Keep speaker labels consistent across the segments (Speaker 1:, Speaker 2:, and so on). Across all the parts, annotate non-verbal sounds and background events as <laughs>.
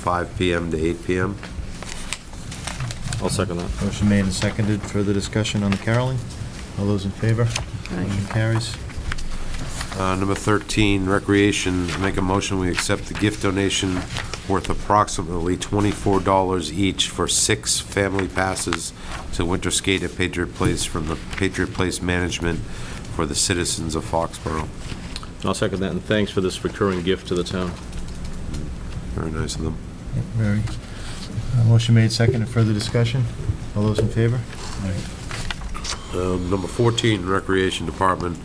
Speaker 1: 5 PM to 8 PM.
Speaker 2: I'll second that.
Speaker 3: Motion made and seconded. Further discussion on the caroling? All those in favor?
Speaker 4: Aye.
Speaker 3: Motion carries.
Speaker 1: Uh, Number 13, Recreation, make a motion, we accept the gift donation worth approximately $24 each for six family passes to winter skate at Patriot Place from the Patriot Place Management for the citizens of Foxborough.
Speaker 2: I'll second that, and thanks for this recurring gift to the town.
Speaker 1: Very nice of them.
Speaker 3: Yep, Very. Uh, Motion made, seconded. Further discussion? All those in favor?
Speaker 1: Um, Number 14, Recreation Department,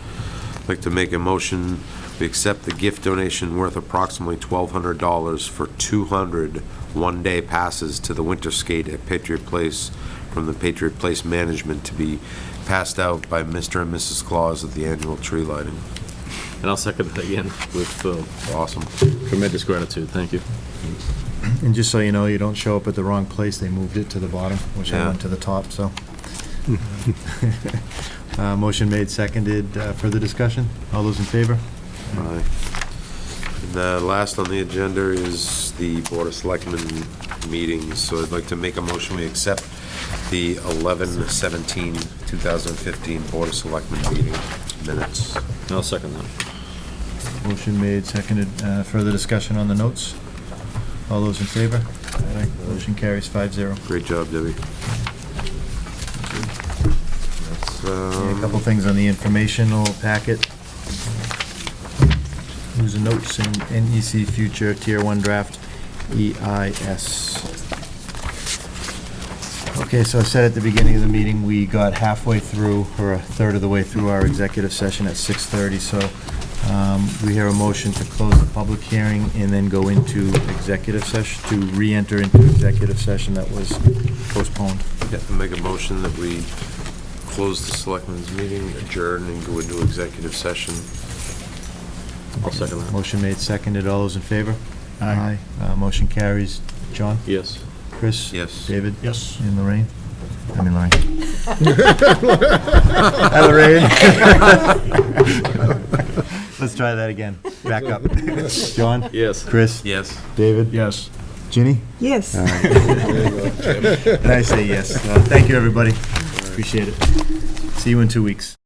Speaker 1: I'd like to make a motion, we accept the gift donation worth approximately $1,200 for 200 one-day passes to the winter skate at Patriot Place from the Patriot Place Management to be passed out by Mr. and Mrs. Claus at the annual tree lighting.
Speaker 2: And I'll second that again with uh,
Speaker 1: Awesome.
Speaker 2: tremendous gratitude, thank you.
Speaker 3: And just so you know, you don't show up at the wrong place. They moved it to the bottom, which I
Speaker 1: Yeah.
Speaker 3: went to the top, so. Uh, Motion made, seconded. Uh, Further discussion? All those in favor?
Speaker 1: Aye. And The last on the agenda is the Board of Selectmen meetings, so I'd like to make a motion, we accept the 11/17/2015 Board of Selectmen meeting minutes.
Speaker 2: I'll second that.
Speaker 3: Motion made, seconded. Uh, Further discussion on the notes? All those in favor? Aye. Motion carries five zero.
Speaker 1: Great job, Debbie. That's,
Speaker 3: Yeah, A
Speaker 1: um,
Speaker 3: couple things on the informational packet. News and notes in NEC Future Tier 1 Draft E EIS. Okay, so I said at the beginning of the meeting, we got halfway through, or a third of the way through our executive session at 6:30, so um, we hear a motion to close the public hearing and then go into executive session, to re-enter into executive session that was postponed.
Speaker 1: yeah, Make a motion that we close the Selectmen's meeting, adjourn, and go into executive session.
Speaker 2: I'll second that.
Speaker 3: Motion made, seconded. All those in favor? Aye. Uh, Motion carries. John?
Speaker 2: Yes.
Speaker 3: Chris?
Speaker 1: Yes.
Speaker 3: David?
Speaker 5: Yes.
Speaker 3: And Lorraine? I mean Lorraine. Hi, Lorraine. <laughs> Let's try that again. Back up. <laughs> John?
Speaker 2: Yes.
Speaker 3: Chris?
Speaker 1: Yes.
Speaker 3: David?
Speaker 5: Yes.
Speaker 3: Ginny?
Speaker 4: Yes.
Speaker 3: And I say yes. Uh, Thank you, everybody. Appreciate it. See you in two weeks.